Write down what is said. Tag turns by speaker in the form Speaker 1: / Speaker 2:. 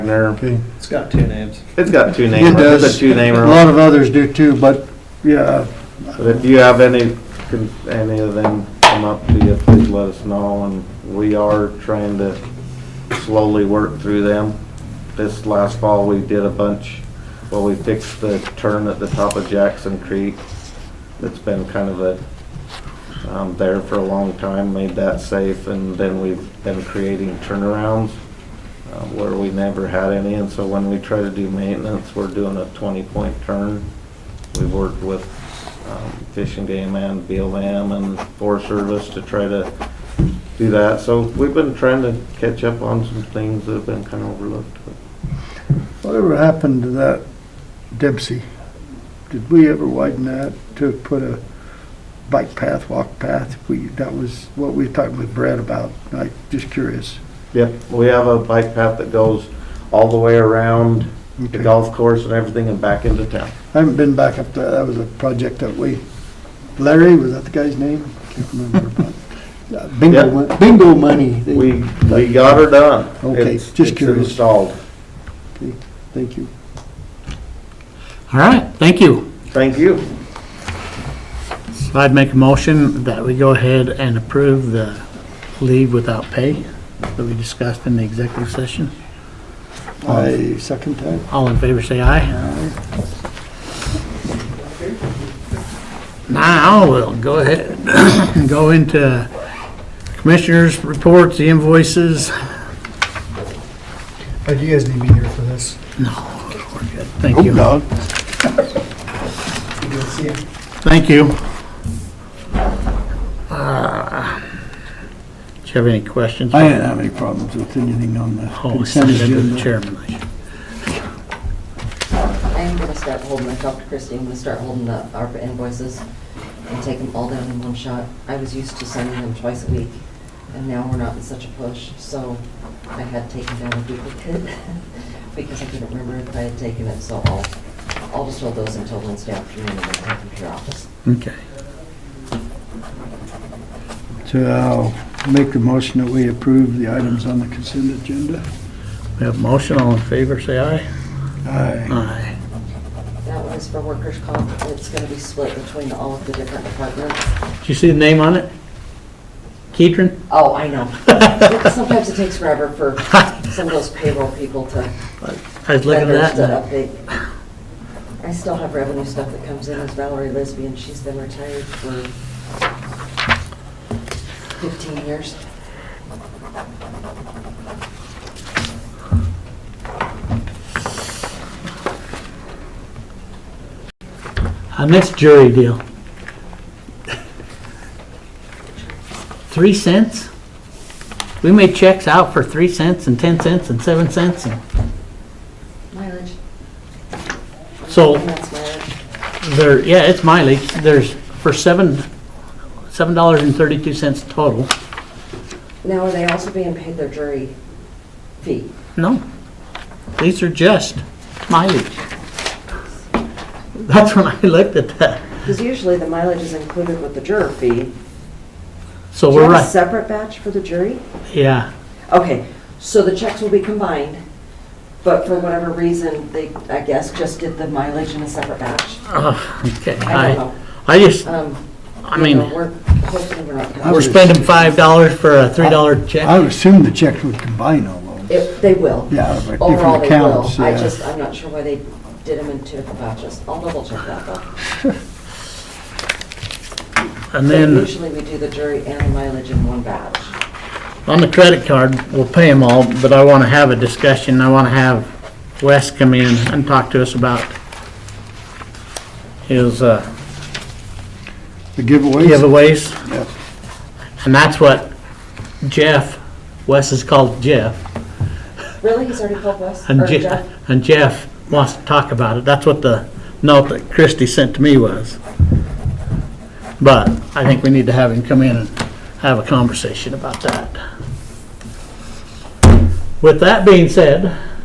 Speaker 1: Wagner.
Speaker 2: It's got two names.
Speaker 1: It's got two
Speaker 3: It
Speaker 1: names. It's
Speaker 3: does.
Speaker 1: a two
Speaker 3: A
Speaker 1: namer.
Speaker 3: lot of others do too, but yeah,
Speaker 1: But if you have any, con- any of them come up to you, please let us know, and we are trying to slowly work through them. This last fall, we did a bunch, well, we fixed the turn at the top of Jackson Creek. It's been kind of a, um, there for a long time, made that safe, and then we've been creating turnarounds uh, where we never had any, and so when we try to do maintenance, we're doing a twenty-point turn. We've worked with um, Fish and Game and BLM and Forest Service to try to do that. So we've been trying to catch up on some things that have been kind of overlooked.
Speaker 3: whatever happened to that Dempsey? Did we ever widen that to put a bike path, walk path? We, that was what we were talking with Brad about. I'm just curious.
Speaker 1: Yep, we have a bike path that goes all the way around the
Speaker 3: Okay.
Speaker 1: golf course and everything and back into town.
Speaker 3: I haven't been back up there. That was a project that we, Larry, was that the guy's name? Can't remember. but, uh, Bingo,
Speaker 1: Yeah.
Speaker 3: mon- bingo money. They-
Speaker 1: We, we got her done.
Speaker 3: Okay,
Speaker 1: It's-
Speaker 3: just
Speaker 1: It's
Speaker 3: curious.
Speaker 1: installed.
Speaker 3: Thank you.
Speaker 4: All right, thank you.
Speaker 1: Thank you.
Speaker 4: So I'd make a motion that we go ahead and approve the leave without pay that we discussed in the executive session.
Speaker 3: I second time.
Speaker 4: All in favor, say aye. Now, we'll go ahead and go into commissioners' reports, the invoices.
Speaker 5: Uh, Do you guys need me here for this?
Speaker 4: We're good. Thank you. Thank you. Uh, Do you have any questions?
Speaker 3: I didn't have any problems with anything on the
Speaker 4: Oh,
Speaker 3: consent
Speaker 4: uh, send it to the
Speaker 3: agenda.
Speaker 4: chairman. I should-
Speaker 6: I am gonna start holding, I talked to Christie, I'm gonna start holding the ARPA invoices and take them all down in one shot. I was used to sending them twice a week, and now we're not in such a push, so I had taken down a duplicate because I couldn't remember if I had taken it, so I'll, I'll just hold those until Wednesday afternoon and then take them to your office.
Speaker 4: Okay.
Speaker 3: So I'll make the motion that we approve the items on the consent agenda.
Speaker 4: We have a motion, all in favor, say aye.
Speaker 3: Aye.
Speaker 4: Aye.
Speaker 6: That one is for workers' comp, it's gonna be split between all of the different departments.
Speaker 4: Did you see the name on it? Keatron?
Speaker 6: Oh, I know. Sometimes it takes forever for some of those payroll people to
Speaker 4: I was looking at that.
Speaker 6: Vendors to update. I still have revenue stuff that comes in as Valerie Lesbian. She's been retired for 15 years.
Speaker 4: I missed jury deal. Three cents? We made checks out for three cents and 10 cents and seven cents. and
Speaker 6: Mileage.
Speaker 4: So-
Speaker 6: And That's mileage.
Speaker 4: There, yeah, it's mileage. There's for seven, $7.32 total.
Speaker 6: Now, are they also being paid their jury fee?
Speaker 4: No, these are just mileage. That's when I looked at that.
Speaker 6: Because usually the mileage is included with the juror fee.
Speaker 4: So
Speaker 6: Do
Speaker 4: we're
Speaker 6: you have a
Speaker 4: right,
Speaker 6: separate batch for the jury?
Speaker 4: yeah.
Speaker 6: Okay, so the checks will be combined, but for whatever reason, they, I guess, just did the mileage in a separate batch.
Speaker 4: Oh, Okay,
Speaker 6: I don't
Speaker 4: I, I just,
Speaker 6: know. Um,
Speaker 4: I
Speaker 6: you know,
Speaker 4: mean,
Speaker 6: We're hopefully we're not.
Speaker 3: I
Speaker 4: we're
Speaker 3: was-
Speaker 4: spending five dollars for a three dollar
Speaker 3: I
Speaker 4: check.
Speaker 3: would assume the checks would combine all those.
Speaker 6: If They will.
Speaker 3: Yeah, but
Speaker 6: Overall,
Speaker 3: different
Speaker 6: they will.
Speaker 3: accounts,
Speaker 6: I
Speaker 3: yeah.
Speaker 6: just, I'm not sure why they did them in two different batches. I'll double check that though.
Speaker 4: And
Speaker 6: But
Speaker 4: then
Speaker 6: Usually we do the jury and the mileage in one batch.
Speaker 4: on the credit card, we'll pay them all, but I wanna have a discussion. I wanna have Wes come in and talk to us about his uh,
Speaker 3: The giveaways,
Speaker 4: giveaways.
Speaker 3: Yep.
Speaker 4: And that's what Jeff, Wes is called Jeff.
Speaker 6: Really? He's already called Wes?
Speaker 4: And
Speaker 6: Or
Speaker 4: Jeff, and Jeff wants to talk about it. That's what the note that Christie sent to me was. But I think we need to have him come in and have a conversation about that. With that being said,